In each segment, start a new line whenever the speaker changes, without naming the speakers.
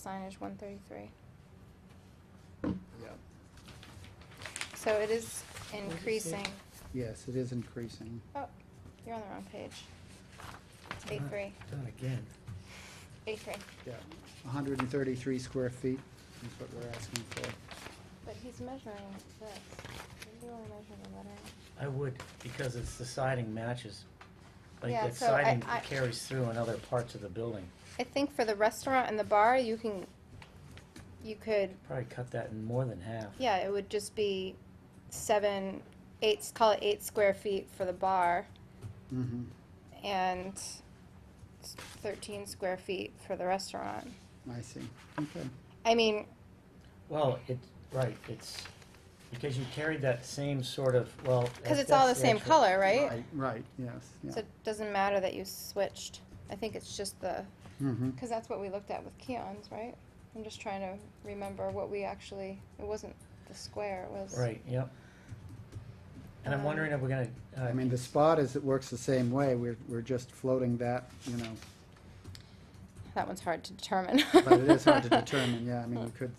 signage one thirty-three.
Yeah,
So it is increasing.
yes, it is increasing.
Oh, you're on the wrong page. A three,
Not again.
A three,
Yeah, hundred and thirty-three square feet is what we're asking for.
but he's measuring this. Maybe you wanna measure the lettering.
I would, because it's the siding matches. Like
Yeah,
that
so I-
siding
I-
carries through in other parts of the building.
I think for the restaurant and the bar, you can, you could,
Probably cut that in more than half.
yeah, it would just be seven, eight, call it eight square feet for the bar
Mm-hmm,
and s- thirteen square feet for the restaurant.
I see, okay.
I mean,
Well, it, right, it's, because you carried that same sort of, well.
cause
that-
it's all the
that's
same
actual-
color, right?
Right, yes,
So
yeah.
it doesn't matter that you switched. I think it's just the,
Mm-hmm,
because that's what we looked at with Keon's, right? I'm just trying to remember what we actually, it wasn't the square, it was.
Right, yep. And I'm
Um,
wondering if we're gonna, uh,
I mean, the spot is, it works the same way, we're, we're just floating that, you know,
That one's hard to determine.
but it is hard to determine, yeah, I mean, you could,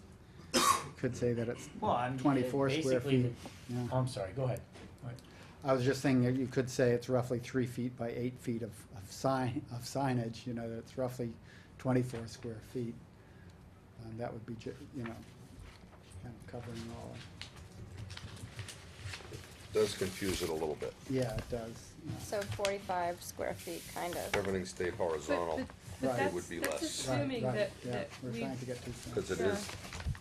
you could say that it's
Well, I mean,
twenty-four
it-
square
basically
feet. yeah.
I'm sorry, go ahead.
I was just saying, that you could say it's roughly three feet by eight feet of, of sign, of signage, you know, that it's roughly twenty-four square feet. And that would be ju, you know, kind of covering all,
does confuse it a little bit.
yeah, it does, yeah.
So forty-five square feet, kind
If
of.
Everything stayed horizontal,
But- but-
Right.
but
It
would be less.
that's- That's
Right,
assuming
right,
that,
yeah,
that
We're
we,
trying to get too far.
because it
Yeah.
is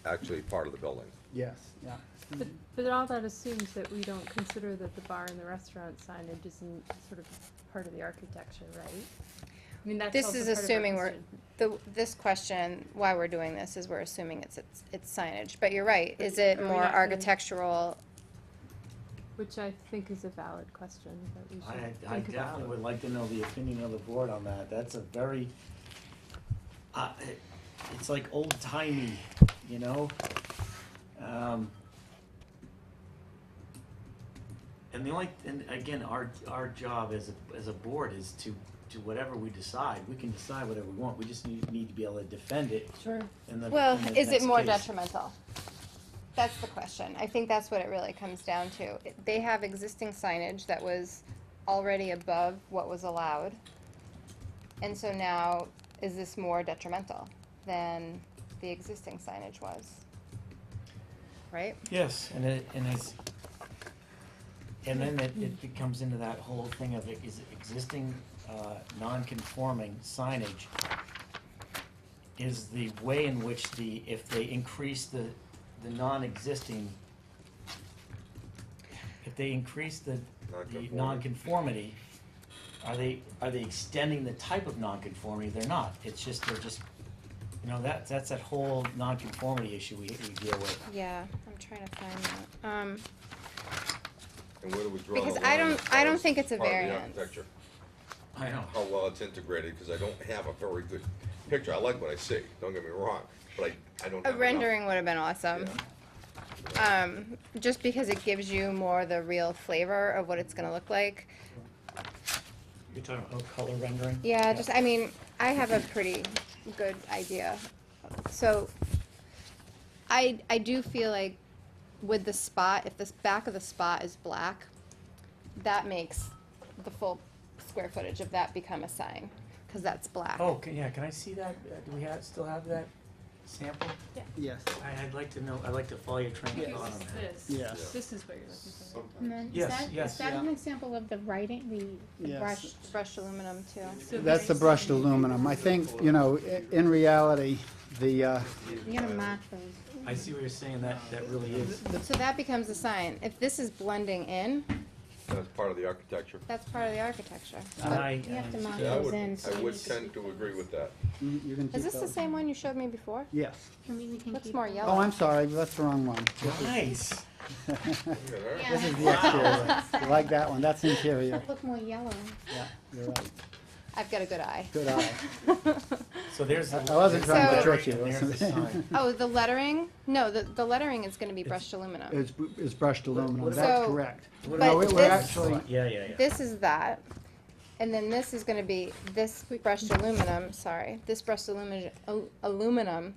actually part of the building.
Yes, yeah.
but, but all that assumes that we don't consider that the bar and the restaurant signage isn't sort of part of the architecture, right? I mean, that's
This
also
is
part of our
assuming we're,
question.
the, this question, why we're doing this is we're assuming it's, it's- it's signage, but you're right.
But
Is it
are we
more
not gonna-
architectural?
Which I think is a valid question that we should
I,
think about.
I definitely would like to know the opinion of the board on that, that's a very, uh, it- it's like old timey, you know? Um, And the only, and again, our, our job as a, as a board is to, to whatever we decide, we can decide whatever we want, we just need, need to be able to defend it
Sure.
in the,
Well,
in the
is it
next
more
case.
detrimental? That's the question. I think that's what it really comes down to. It- They have existing signage that was already above what was allowed. And so now, is this more detrimental than the existing signage was? Right?
Yes, and it, and it's, and then it, it becomes into that whole thing of it is existing, uh, non-conforming signage is the way in which the, if they increase the, the non-existing, if they increase the, the
Non-conformity.
non-conformity, are they, are they extending the type of non-conformity? They're not, it's just, they're just, you know, that, that's that whole non-conformity issue we, we deal with.
Yeah, I'm trying to find that. Um,
And where do we draw the
Because
line?
I don't-
as far
I don't
as
think it's a
part of the
variance.
architecture?
I know.
How well it's integrated, because I don't have a very good picture. I like what I see, don't get me wrong, but I, I don't have
a
enough.
rendering would have been awesome. Um, just because it gives you more the real flavor of what it's gonna look like.
You're talking about oh, color rendering?
Yeah, just, I mean, I have a pretty good idea. So, I, I do feel like with the spot, if this back of the spot is black, that makes the full square footage of that become a sign, cause that's black.
Oh, can, yeah, can I see that? Uh, Do we have, still have that sample?
Yes,
I, I'd like to know, I'd like to follow your train of thought on that.
This is
yes.
this, this is what you're looking for.
And then,
Yes,
is that,
yes.
is that
Yeah.
an example of the writing, the- the
Yes.
brushed?
Brushed aluminum too.
So
That's the
there's-
brushed aluminum. I think, you know, i- in reality, the, uh,
You gotta mark those.
I see what you're saying, that, that really is.
So that becomes a sign. If this is blending in,
That's part of the architecture.
that's part of the architecture.
I,
You have to
uh,
mark
Yeah, I
those
would,
in.
I
so
would
you-
tend to agree with that.
you you can keep
Is this the
those.
same one you showed me before?
Yes.
I mean, we can
Looks
keep
more
them.
yellow.
Oh, I'm sorry, that's the wrong one.
nice.
Look at that.
This is the exterior.
Wow.
You like that one, that's interior.
Look more yellow.
Yeah, you're right.
I've got a good eye.
Good eye.
So there's. the-
I- I wasn't
there's the
trying to
lettering
trick you,
and
I
There's
was-
the sign.
Oh, the lettering? No, the, the lettering is gonna be
It's-
brushed aluminum.
It's, it's brushed aluminum,
what
that's
about-
correct.
What
But
No, we- we're
this-
actually,
Yeah, yeah, yeah.
This is that, and then this is gonna be, this brushed aluminum, sorry, this brushed aluminum, aluminum